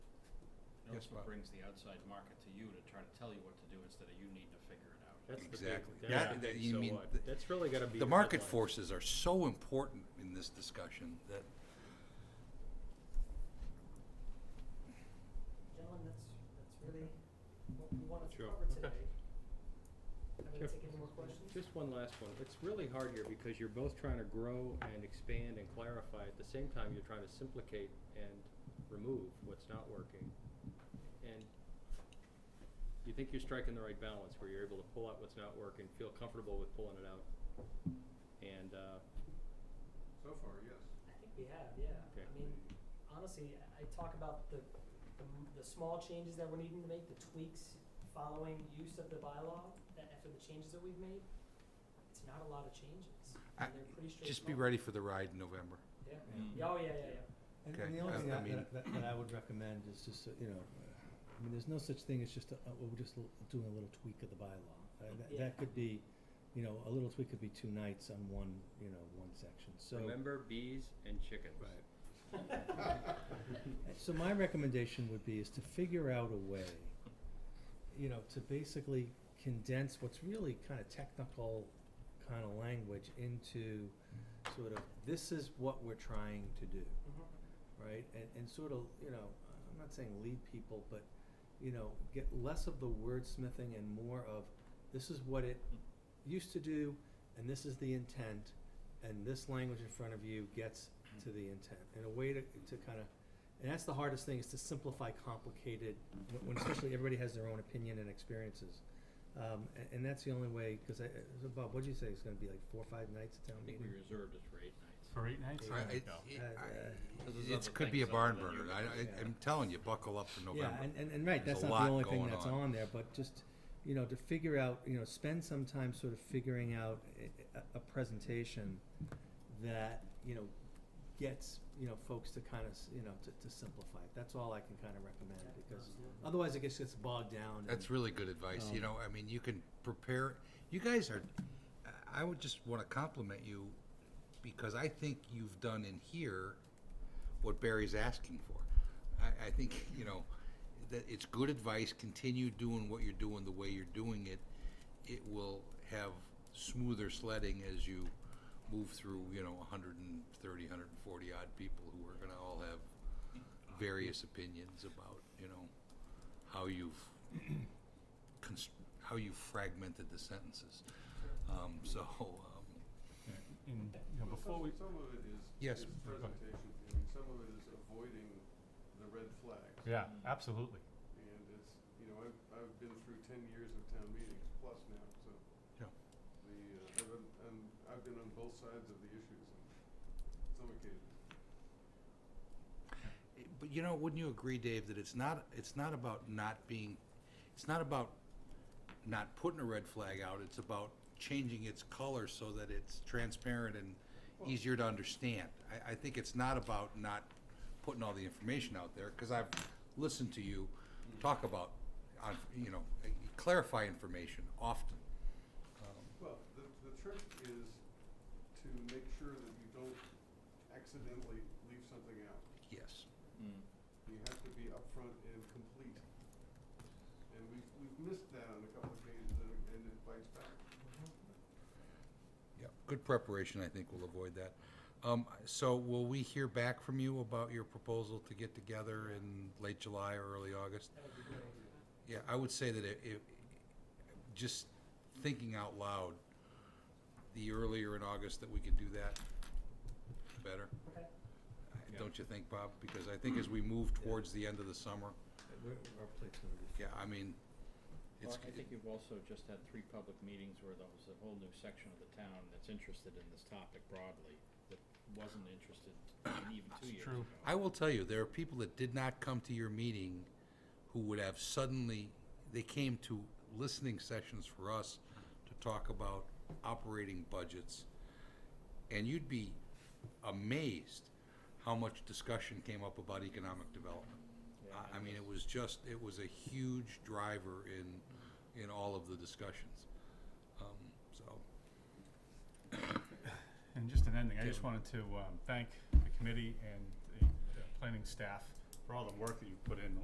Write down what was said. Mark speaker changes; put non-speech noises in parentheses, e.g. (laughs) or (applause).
Speaker 1: spot.
Speaker 2: It brings the outside market to you to try to tell you what to do instead of you needing to figure it out.
Speaker 3: That's the big-
Speaker 1: Exactly.
Speaker 3: that's
Speaker 1: That-
Speaker 3: the
Speaker 1: that-
Speaker 3: big
Speaker 1: you
Speaker 3: so
Speaker 1: mean
Speaker 3: what.
Speaker 1: th-
Speaker 3: That's really gotta be.
Speaker 1: The market
Speaker 3: headline.
Speaker 1: forces are so important in this discussion that,
Speaker 4: Gentlemen, that's, that's really what we wanted to
Speaker 3: Sure,
Speaker 4: cover
Speaker 3: okay.
Speaker 4: today. Have we
Speaker 3: Sure.
Speaker 4: taken any more questions?
Speaker 3: Just one last one. It's really hard here because you're both trying to grow and expand and clarify. At the same time, you're trying to simplicate and remove what's not working. And you think you're striking the right balance where you're able to pull out what's not working, feel comfortable with pulling it out. And, uh,
Speaker 5: So far, yes.
Speaker 4: I think we have, yeah.
Speaker 3: Okay.
Speaker 4: I mean, honestly, I- I talk about the, the, m- the small changes that we're needing to make, the tweaks following use of the bylaw, that after the changes that we've made, it's not a lot of changes.
Speaker 1: I-
Speaker 4: And they're pretty straightforward.
Speaker 1: just be ready for the ride in November.
Speaker 4: Yeah.
Speaker 2: Mm.
Speaker 4: Yeah, oh, yeah, yeah, yeah.
Speaker 6: And
Speaker 1: Okay,
Speaker 6: and the only
Speaker 1: I-
Speaker 6: thing
Speaker 1: I
Speaker 6: I-
Speaker 1: mean-
Speaker 6: that, that, that I would recommend is just, uh, you know, uh, I mean, there's no such thing as just, a- uh, we're just l- doing a little tweak of the bylaw. Uh, that,
Speaker 4: Yeah.
Speaker 6: that could be, you know, a little tweak could be two nights on one, you know, one section, so.
Speaker 3: remember bees and chickens.
Speaker 6: Right. Uh, (laughs) So my recommendation would be is to figure out a way, you know, to basically condense what's really kind of technical kind of language into sort of, this is what we're trying to do
Speaker 4: Mhm.
Speaker 6: right? And, and sort of, you know, I'm not saying lead people, but, you know, get less of the wordsmithing and more of, this is what it used to do, and this is the intent, and this language in front of you gets to the intent. And a way to, to kind of, and that's the hardest thing, is to simplify complicated, when- when especially everybody has their own opinion and experiences. Um, and, and that's the only way, because I, so Bob, what'd you say, it's gonna be like four, or five nights at
Speaker 3: I
Speaker 6: town
Speaker 3: think
Speaker 6: meeting?
Speaker 3: we reserved it for eight nights.
Speaker 7: For eight nights?
Speaker 1: I- it-
Speaker 6: Yeah.
Speaker 1: it-
Speaker 6: Uh,
Speaker 1: I-
Speaker 2: Because there's
Speaker 1: It's,
Speaker 2: other
Speaker 1: could be a
Speaker 2: things
Speaker 1: barn
Speaker 2: other than
Speaker 1: burner.
Speaker 2: you-
Speaker 1: I, I,
Speaker 6: Yeah.
Speaker 1: I'm telling you, buckle up for November.
Speaker 6: Yeah, and, and, and right,
Speaker 1: There's
Speaker 6: that's
Speaker 1: a
Speaker 6: not
Speaker 1: lot
Speaker 6: the only thing
Speaker 1: going
Speaker 6: that's on there, but just, you know, to figure out, you know, spend some time sort of figuring out a, a- a presentation that, you know, gets, you know, folks to kind of, you know, to, to simplify. That's all I can kind of recommend,
Speaker 4: Yeah,
Speaker 6: because
Speaker 4: absolutely.
Speaker 6: otherwise it gets, gets bogged down. and-
Speaker 1: That's really good advice. You
Speaker 6: Um,
Speaker 1: know, I mean, you can prepare. You guys are. I- I would just want to compliment you because I think you've done in here what Barry's asking for. I, I think you know that it's good advice. Continue doing what you're doing the way you're doing it. It will have smoother sledding as you move through. You know, 130, 140 odd people who are going to all have various opinions about you know how you've const- how you fragmented the sentences. Um, so, (laughs) um,
Speaker 7: And, you know,
Speaker 5: Well,
Speaker 7: before
Speaker 5: some-
Speaker 7: we,
Speaker 5: Some of it is.
Speaker 1: Yes.
Speaker 5: is
Speaker 7: Go ahead.
Speaker 5: presentation, I mean, some of it is avoiding the red flags.
Speaker 7: yeah, absolutely.
Speaker 5: And it's, you know, I've, I've been through ten years of town meetings plus now, so.
Speaker 1: Yeah.
Speaker 5: The, uh, I've, been- and I've been on both sides of the issues on some occasions.
Speaker 1: but you know, wouldn't you agree, Dave, that it's not it's not about not being, it's not about not putting a red flag out. It's about changing its color so that it's transparent and easier to understand. I, I think it's not about not putting all the information out there because I've listened to you talk about, on, you know, clarify information often. Um,
Speaker 5: Well, the, the trick is to make sure that you don't accidentally leave something out.
Speaker 1: yes.
Speaker 2: Mm.
Speaker 5: You have to be upfront and complete. And we've, we've missed that on a couple of occasions and it- and it bites back.
Speaker 1: Yeah, good preparation, I think, will avoid that. Um, so will we hear back from you about your proposal to get together in late July or early August?
Speaker 4: That would be great.
Speaker 1: Yeah, I would say that it, it, just thinking out loud, the earlier in August that we could do that, the better.
Speaker 4: Okay.
Speaker 3: Yeah.
Speaker 1: Don't you think, Bob? Because I think as we move towards the end of the summer,
Speaker 6: We're- Our plate's gonna be.
Speaker 1: yeah, I mean,
Speaker 2: Well,
Speaker 1: it's,
Speaker 2: I think you've also just had three public meetings where there was a whole new section of the town that's interested in this topic broadly, that wasn't interested in even two
Speaker 7: It's
Speaker 2: years ago.
Speaker 7: true.
Speaker 1: I will tell you, there are people that did not come to your meeting who would have suddenly, they came to listening sessions for us to talk about operating budgets. And you'd be amazed how much discussion came up about economic development.
Speaker 2: Yeah,
Speaker 1: I, I
Speaker 2: and
Speaker 1: mean,
Speaker 2: this-
Speaker 1: it was just, it was a huge driver in, in all of the discussions. Um, so,
Speaker 7: And just in ending, I just
Speaker 1: Tim.
Speaker 7: wanted to um, thank the committee and the uh, planning staff for all the work that you put in